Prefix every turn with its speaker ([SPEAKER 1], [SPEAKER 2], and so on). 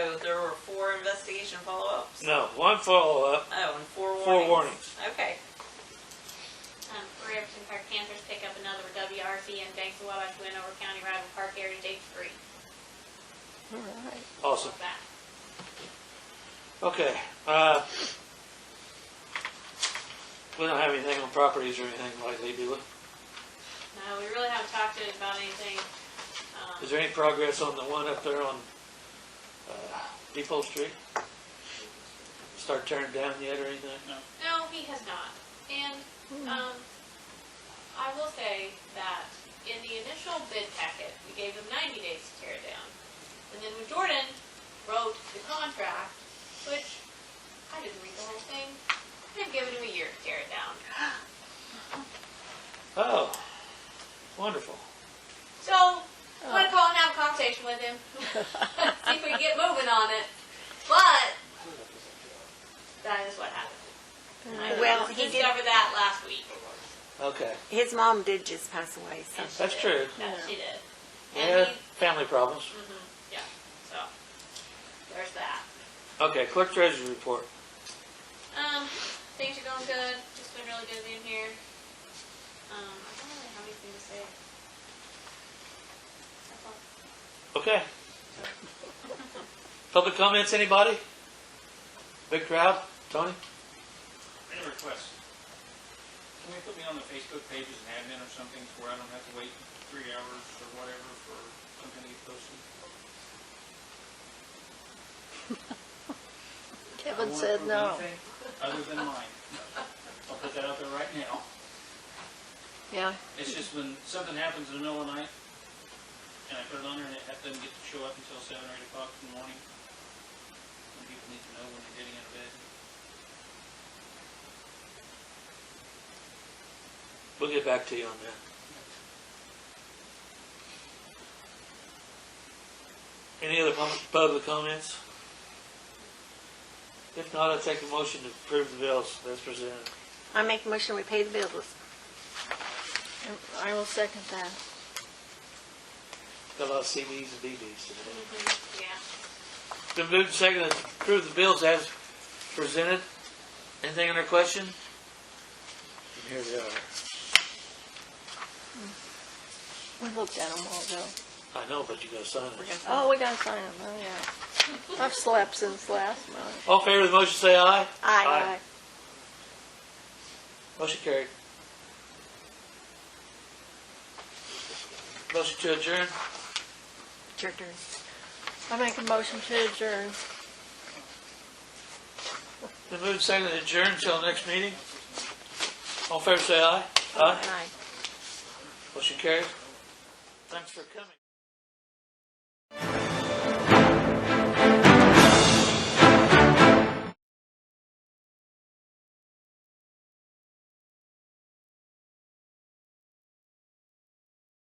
[SPEAKER 1] investigation follow-ups?
[SPEAKER 2] No, one uh, follow-up,
[SPEAKER 1] Oh, and four warnings.
[SPEAKER 2] four warnings.
[SPEAKER 1] Okay.
[SPEAKER 3] Um, Riverton Park Panthers pick up another WRC and banks the Wabash win over County Rival Park Heritage Day three.
[SPEAKER 4] All right.
[SPEAKER 2] Awesome.
[SPEAKER 3] That.
[SPEAKER 2] Okay, uh, we don't have anything on properties or anything lately, do we?
[SPEAKER 3] No, we really haven't talked to it about anything. Um,
[SPEAKER 2] Is there any progress on the one up there on, uh, Depot Street? Start tearing down yet or anything?
[SPEAKER 3] No, he has not. And, um, I will say that in the initial bid packet, we gave them ninety days to tear it down. And then when Jordan wrote the contract, which I didn't read the whole thing, they've given him a year to tear it down.
[SPEAKER 2] Oh, wonderful.
[SPEAKER 3] So, I'm gonna call and have a conversation with him. See if we can get moving on it. But, that is what happened. I
[SPEAKER 4] Well, he did,
[SPEAKER 3] Discovered that last week.
[SPEAKER 2] Okay,
[SPEAKER 4] his mom did just pass away, so.
[SPEAKER 3] And she
[SPEAKER 2] that's
[SPEAKER 3] did.
[SPEAKER 2] true.
[SPEAKER 3] Yeah, she did.
[SPEAKER 2] Yeah,
[SPEAKER 3] And he
[SPEAKER 2] family problems.
[SPEAKER 3] Yeah, so, there's that.
[SPEAKER 2] Okay, clerk treasurer's report.
[SPEAKER 3] Um, things are going good, just been really busy in here. Um, I don't really have anything to say. That's all.
[SPEAKER 2] Okay. Public comments, anybody? Big crowd? Tony?
[SPEAKER 5] I have a request. Can we put me on the Facebook page as an admin or something where I don't have to wait three hours or whatever for something to get posted? I
[SPEAKER 4] Kevin
[SPEAKER 5] won't
[SPEAKER 4] said
[SPEAKER 5] approve
[SPEAKER 4] no.
[SPEAKER 5] anything Other than mine. I'll put that out there right now.
[SPEAKER 4] Yeah,
[SPEAKER 5] It's just when something happens in the middle of the night and I put it on there and it doesn't get to show up until seven or eight o'clock in the morning. And people need to know when they're getting out of bed.
[SPEAKER 2] We'll get back to you on that. Any other pub- public comments? If not, I'll take a motion to approve the bills that's presented.
[SPEAKER 4] I make a motion, we pay the bills.
[SPEAKER 6] I will second that.
[SPEAKER 2] Got a lot of CDs and DVDs today.
[SPEAKER 4] Mm-hmm.
[SPEAKER 3] Yeah.
[SPEAKER 2] The move second to approve the bills as presented. Anything under question? And Here they are.
[SPEAKER 6] We looked at them all though.
[SPEAKER 2] I know, but you gotta sign it.
[SPEAKER 6] Oh, we gotta sign them, oh yeah. I've slept since last month.
[SPEAKER 2] All in favor of the motion, say aye.
[SPEAKER 4] Aye.
[SPEAKER 2] Motion carried. Motion to adjourn.
[SPEAKER 4] It's your turn.
[SPEAKER 6] I make a motion to adjourn.
[SPEAKER 2] The move second to adjourn until next meeting. All in favor, say aye. Aye.
[SPEAKER 4] Aye.
[SPEAKER 2] Motion carried. Thanks for coming.